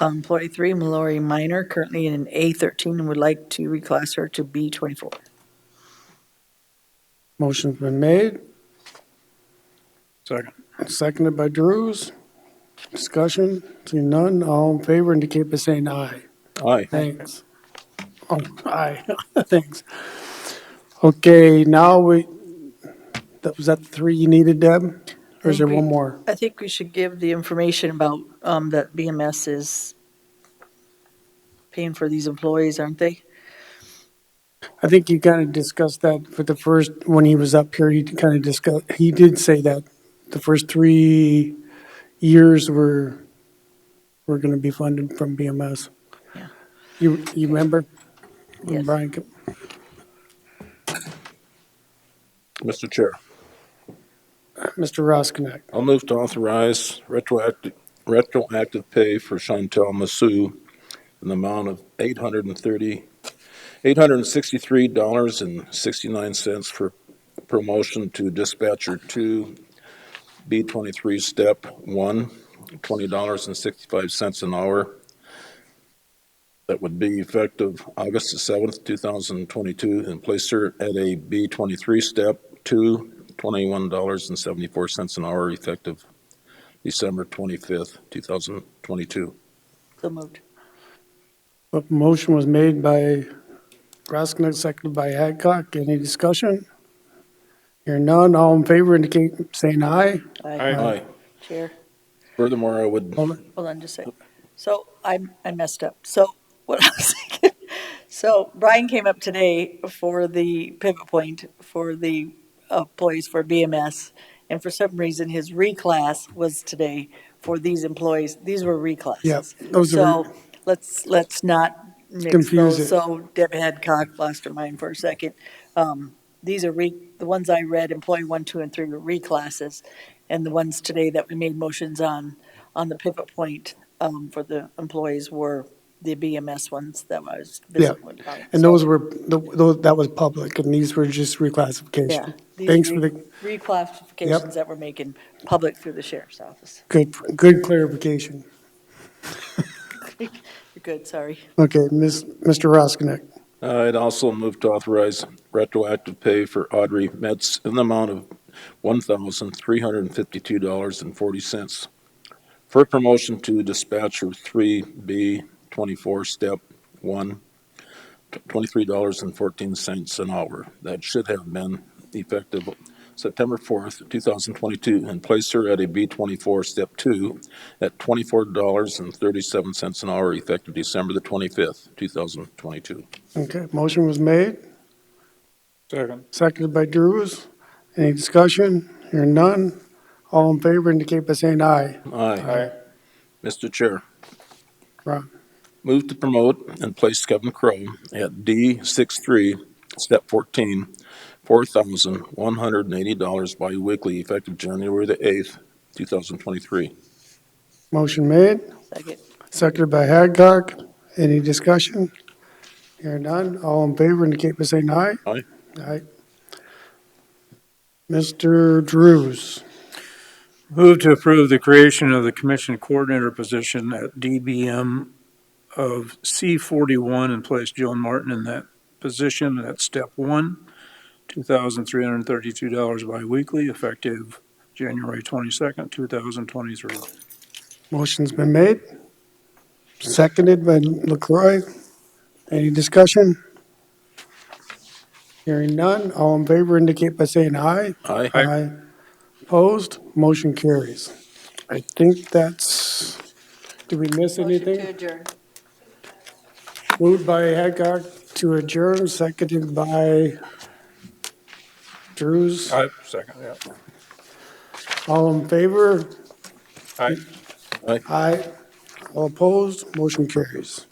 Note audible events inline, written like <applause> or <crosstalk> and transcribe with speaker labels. Speaker 1: Employee three, Um, Mallory Minor, currently in an A13, and would like to reclass her to B24.
Speaker 2: Motion's been made,
Speaker 3: Second.
Speaker 2: seconded by Drews. Discussion, seeing none, all in favor indicate by saying aye.
Speaker 3: Aye.
Speaker 2: Thanks. Oh, aye, <laughs> thanks. Okay, now we, that- was that the three you needed, Deb? Or is there one more?
Speaker 1: I think we should give the information about, um, that BMS is paying for these employees, aren't they?
Speaker 2: I think you kind of discussed that for the first, when he was up here, he kind of discussed, he did say that the first three years were, were going to be funded from BMS.
Speaker 1: Yeah.
Speaker 2: You, you remember? When
Speaker 1: Yes.
Speaker 2: Brian, co-
Speaker 3: Mr. Chair,
Speaker 2: Mr. Roskinek,
Speaker 3: I'll move to authorize retroactive, retroactive pay for Chantel Massou in the amount of eight hundred and thirty, eight hundred and sixty-three dollars and sixty-nine cents for promotion to dispatcher two, B twenty-three, step one, twenty dollars and sixty-five cents an hour. That would be effective August the seventh, two thousand twenty-two, and place her at a B twenty-three, step two, twenty-one dollars and seventy-four cents an hour effective December twenty-fifth, two thousand twenty-two.
Speaker 1: So moved.
Speaker 2: a motion was made by Roskinek, seconded by Hadcock. Any discussion? Hearing none, all in favor indicate, saying aye.
Speaker 1: Aye.
Speaker 3: Aye.
Speaker 1: Chair,
Speaker 3: Furthermore, I would,
Speaker 2: Hold it.
Speaker 1: hold on just a sec. So I, I messed up. So what I was <laughs> thinking, so Brian came up today for the pivot point for the uh, employees for BMS. And for some reason, his reclass was today for these employees. These were reclasses.
Speaker 2: Yeah, those are-
Speaker 1: So let's, let's not mix
Speaker 2: Confuse it.
Speaker 1: those. So Deb Hadcock lost her mind for a second. Um, These are re, the ones I read, employee one, two, and three were reclasses. And the ones today that we made motions on, on the pivot point um, for the employees were the BMS ones that I was visiting with. Brian.
Speaker 2: And those were, tho- tho- that was public, and these were just
Speaker 1: Yeah.
Speaker 2: reclassification.
Speaker 1: These
Speaker 2: Thanks
Speaker 1: are
Speaker 2: for the,
Speaker 1: re- Reclassifications that we're making public through the sheriff's office. <laughs>
Speaker 2: good, good clarification.
Speaker 1: You're good, sorry.
Speaker 2: Okay, Ms., Mr. Roskinek,
Speaker 3: I'd Uh, also move to authorize retroactive pay for Audrey Metz in the amount of one thousand three hundred and fifty-two dollars and forty cents for promotion to dispatcher three B twenty-four, step one, twenty-three dollars and fourteen cents an hour. That should have been effective September fourth, two thousand twenty-two, and place her at a B twenty-four, step two, at twenty-four dollars and thirty-seven cents an hour effective December the twenty-fifth, two thousand twenty-two.
Speaker 2: okay, motion was made,
Speaker 4: Second.
Speaker 2: seconded by Drews. Any discussion? Hearing none. All in favor indicate by saying aye.
Speaker 3: Aye.
Speaker 4: Aye.
Speaker 3: Mr. Chair,
Speaker 2: Ron,
Speaker 3: move to promote and place Kevin Crowe at D six-three, step fourteen, four thousand one hundred and eighty dollars biweekly effective January the eighth, two thousand twenty-three.
Speaker 2: Motion made,
Speaker 1: Second.
Speaker 2: seconded by Hadcock. Any discussion? Hearing none. All in favor indicate by saying aye.
Speaker 3: Aye.
Speaker 2: Aye. Mr. Drews,
Speaker 4: Move to approve the creation of the commission coordinator position at DBM of C forty-one and place Joan Martin in that position at step one, two thousand three hundred and thirty-two dollars biweekly, effective January twenty-second, two thousand twenty-three.
Speaker 2: Motion's been made, seconded by Lacroix. Any discussion? Hearing none, all in favor indicate by saying aye.
Speaker 3: Aye.
Speaker 2: Opposed, motion carries. I think that's, did we miss anything?
Speaker 1: adjourn.
Speaker 2: Moved by Hancock to adjourn, seconded by Drews.
Speaker 4: Aye, second, yeah.
Speaker 2: All in favor?
Speaker 4: Aye.
Speaker 2: Aye. All opposed, motion carries.